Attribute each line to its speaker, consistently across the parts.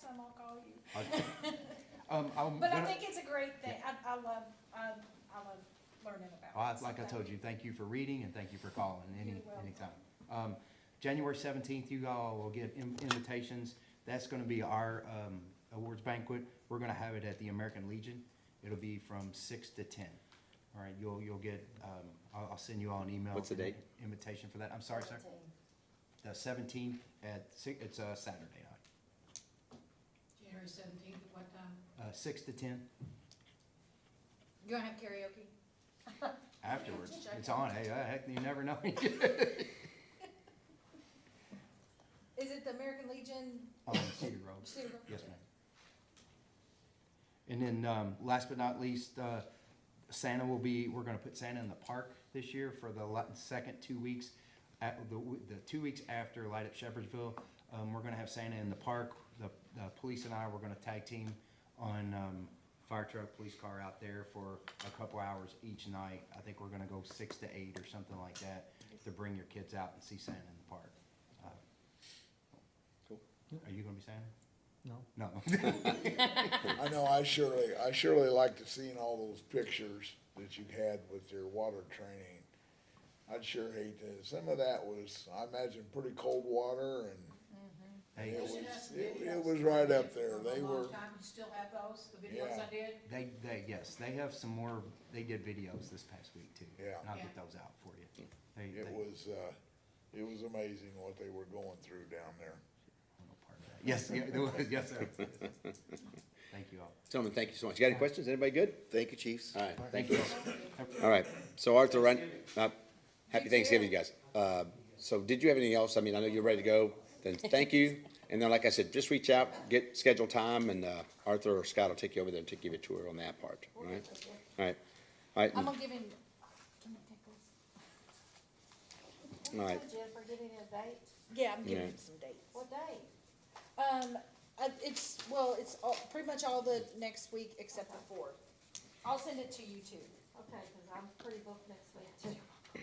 Speaker 1: time, I'll call you.
Speaker 2: Um, I'm,
Speaker 1: But I
Speaker 2: what-
Speaker 1: think it's a great thing. I, I love, I, I love learning about.
Speaker 2: Well,
Speaker 1: it.
Speaker 2: it's like I
Speaker 1: So
Speaker 2: told you, thank you for reading and thank you for calling any,
Speaker 1: You're welcome.
Speaker 2: anytime. Um, January seventeenth, you all will get in- invitations. That's gonna be our, um, awards banquet. We're gonna have it at the American Legion. It'll be from six to ten. All right, you'll, you'll get, um, I'll, I'll send you all an email.
Speaker 3: What's the date?
Speaker 2: Invitation for that. I'm sorry, sir. The seventeenth at six, it's a Saturday night,
Speaker 4: January seventeenth, at what time?
Speaker 2: uh, six to ten
Speaker 4: You gonna have karaoke?
Speaker 2: afterwards.
Speaker 4: Check
Speaker 2: It's
Speaker 4: it.
Speaker 2: on. Hey, uh, heck, you never know.
Speaker 4: Is it the American Legion?
Speaker 2: On Cedar Road.
Speaker 4: City Road?
Speaker 2: Yes, ma'am. And then, um, last but not least, uh, Santa will be, we're gonna put Santa in the park this year for the la- second two weeks. At the, w- the two weeks after Light Up Shepherdsville, um, we're gonna have Santa in the park. The, the police and I, we're gonna tag team on, um, fire truck, police car out there for a couple hours each night. I think we're gonna go six to eight or something like that to bring your kids out and see Santa in the park. Uh,
Speaker 3: Cool.
Speaker 2: Are you gonna be Santa?
Speaker 5: No.
Speaker 2: No.
Speaker 6: I know, I surely, I surely liked to seeing all those pictures that you had with your water training. I'd sure hate to, some of that was, I imagine, pretty cold water and
Speaker 2: Hey,
Speaker 6: it
Speaker 4: You should have
Speaker 6: was,
Speaker 4: some
Speaker 6: it,
Speaker 4: videos.
Speaker 6: it was right
Speaker 4: I did
Speaker 6: up
Speaker 4: for
Speaker 6: there.
Speaker 4: a
Speaker 6: They
Speaker 4: long
Speaker 6: were,
Speaker 4: time. You still have those, the videos I did?
Speaker 2: They, they, yes, they have some more, they did videos this past week too.
Speaker 6: Yeah.
Speaker 2: And I'll get
Speaker 4: Yeah.
Speaker 2: those out for you. They, they,
Speaker 6: it was, uh, it was amazing what they were going through down there.
Speaker 2: I'm a part of that. Yes, yeah, it was, yes, sir. Thank you all.
Speaker 3: Gentlemen, thank you so much. You got any questions? Anybody good?
Speaker 7: Thank you, chiefs.
Speaker 3: All right, thank you.
Speaker 2: Have-
Speaker 3: All right, so Arthur, run, uh, happy Thanksgiving, guys. Uh, so did you have anything else? I mean, I know you're ready to go, then thank you. And then, like I said, just reach out, get scheduled time, and, uh, Arthur or Scott will take you over there and take you a tour on that part, all right? All right, all right,
Speaker 4: I'm
Speaker 3: all
Speaker 4: gonna give him, can I take this?
Speaker 3: right.
Speaker 8: Jennifer, giving a date,
Speaker 4: Yeah, I'm
Speaker 3: Yeah.
Speaker 4: giving him some dates.
Speaker 8: what date?
Speaker 4: Um, uh, it's, well, it's all, pretty much all the next week except the fourth. I'll send it to you too.
Speaker 8: Okay, cause I'm pretty booked next week too.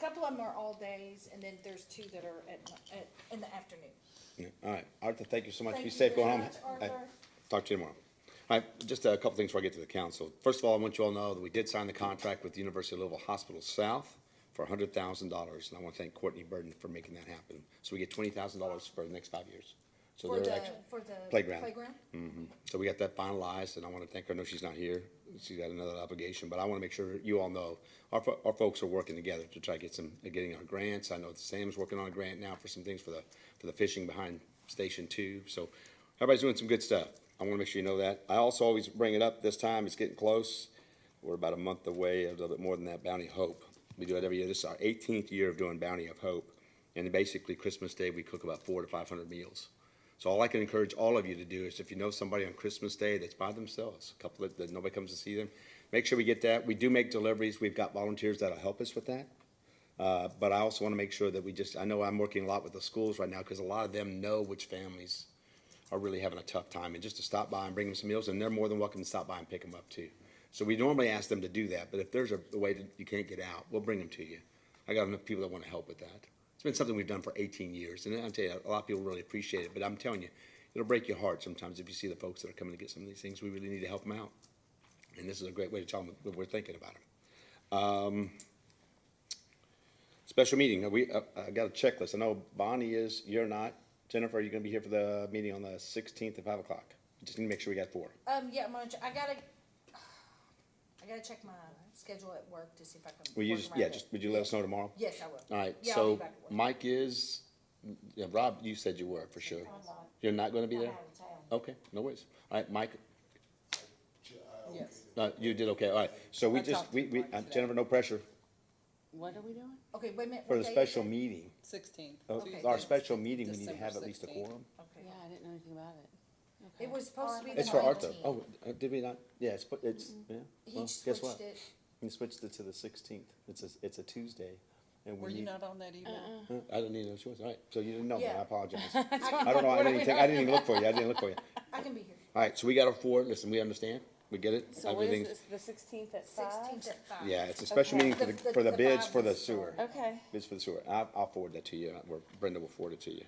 Speaker 4: Couple of them are all days, and then there's two that are at, mi- at, in the afternoon.
Speaker 3: All right, Arthur, thank you so much.
Speaker 4: Thank
Speaker 3: Be
Speaker 4: you
Speaker 3: safe
Speaker 4: very
Speaker 3: going home.
Speaker 4: much,
Speaker 3: All right,
Speaker 4: Arthur.
Speaker 3: Talk to you tomorrow. All right, just a couple things before I get to the council. First of all, I want you all to know that we did sign the contract with the University of Louisville Hospital South for hundred thousand dollars, and I want to thank Courtney Burden for making that happen. So we get twenty thousand dollars for the next five years. So
Speaker 4: For
Speaker 3: they're
Speaker 4: the,
Speaker 3: actually,
Speaker 4: for the.
Speaker 3: Playground.
Speaker 4: Playground?
Speaker 3: so we got that finalized, and I want to thank her. I know she's not here. She's got another obligation, but I want to make sure you all know, our, fo- our folks are working together to try to get some, uh, getting our grants. I know Sam's working on a grant now for some things for the, for the fishing behind Station Two, so everybody's doing some good stuff. I want to make sure you know that. I also always bring it up this time, it's getting close. We're about a month away, a little bit more than that, Bounty Hope. We do it every year. This is our eighteenth year of doing Bounty of Hope. And basically Christmas Day, we cook about four to five hundred meals. So all I can encourage all of you to do is if you know somebody on Christmas Day that's by themselves, a couple that, that nobody comes to see them, make sure we get that. We do make deliveries. We've got volunteers that'll help us with that. Uh, but I also want to make sure that we just, I know I'm working a lot with the schools right now because a lot of them know which families are really having a tough time and just to stop by and bring them some meals and they're more than welcome to stop by and pick them up too. So we normally ask them to do that, but if there's a, a way that you can't get out, we'll bring them to you. I got enough people that want to help with that. It's been something we've done for eighteen years and I'll tell you, a lot of people really appreciate it, but I'm telling you, it'll break your heart sometimes if you see the folks that are coming to get some of these things. We really need to help them out. And this is a great way to tell them that we're thinking about them. Special meeting, Now, we, uh, I got a checklist, I know Bonnie is, you're not, Jennifer, are you gonna be here for the meeting on the sixteenth at five o'clock? Just need to make sure we got four.
Speaker 4: Um, yeah, I'm gonna, ch- I gotta, I gotta check my schedule at work to see if I can.
Speaker 3: Will you
Speaker 4: work
Speaker 3: just,
Speaker 4: around
Speaker 3: yeah,
Speaker 4: it.
Speaker 3: just, would you let us know tomorrow?
Speaker 4: Yes, I will.
Speaker 3: Alright,
Speaker 4: Yeah, I'll
Speaker 3: so
Speaker 4: be back at work.
Speaker 3: Mike is, yeah, Rob, you said you were for sure.
Speaker 8: I'm not,
Speaker 3: You're not gonna be
Speaker 8: I'm
Speaker 3: there?
Speaker 8: out of town.
Speaker 3: Okay, no worries. Alright, Mike,
Speaker 5: Yes.
Speaker 3: uh, you did okay, alright, so we
Speaker 5: I
Speaker 3: just,
Speaker 5: talked to
Speaker 3: we, we,
Speaker 5: Mike
Speaker 3: uh,
Speaker 5: today.
Speaker 3: Jennifer, no pressure
Speaker 5: What are we doing?
Speaker 4: Okay, wait a minute. what
Speaker 3: for the
Speaker 4: day is
Speaker 3: special
Speaker 4: it?
Speaker 3: meeting.
Speaker 5: Sixteenth.
Speaker 3: uh,
Speaker 4: Okay.
Speaker 3: Our special meeting, we need to
Speaker 5: December
Speaker 3: have at least a
Speaker 5: 16th.
Speaker 3: quorum.
Speaker 4: Okay.
Speaker 5: Yeah, I didn't know anything about it. Okay.
Speaker 4: It was supposed to be the
Speaker 3: It's for Arthur.
Speaker 4: 19th.
Speaker 3: Oh, uh, did we not? Yeah, it's, but it's, yeah.
Speaker 4: Mm-hmm. He
Speaker 3: Well, guess what?
Speaker 4: switched it.
Speaker 3: You switched it to the sixteenth. It's a, it's a Tuesday. and we
Speaker 5: Were you
Speaker 3: need-
Speaker 5: not on that evening?
Speaker 3: Huh? I didn't need no choice. All right, so you didn't know that.
Speaker 4: Yeah.
Speaker 3: I apologize. I don't know. I didn't even, think- I didn't even look for you. I didn't look for you.
Speaker 4: I can be here.
Speaker 3: All right, so we got our four. Listen, we understand. We get it.
Speaker 5: So what is
Speaker 3: Everything's,
Speaker 5: this, the sixteenth at five?
Speaker 4: Sixteenth at five.
Speaker 3: yeah, it's a special
Speaker 5: Okay.
Speaker 3: meeting for the,
Speaker 4: The- the-
Speaker 3: for the
Speaker 4: the
Speaker 3: bids
Speaker 4: vibe
Speaker 3: for the
Speaker 4: is
Speaker 3: sewer.
Speaker 4: strong.
Speaker 5: Okay,
Speaker 3: Bids for the sewer. I'll, I'll forward that to you. Or Brenda will forward it to you.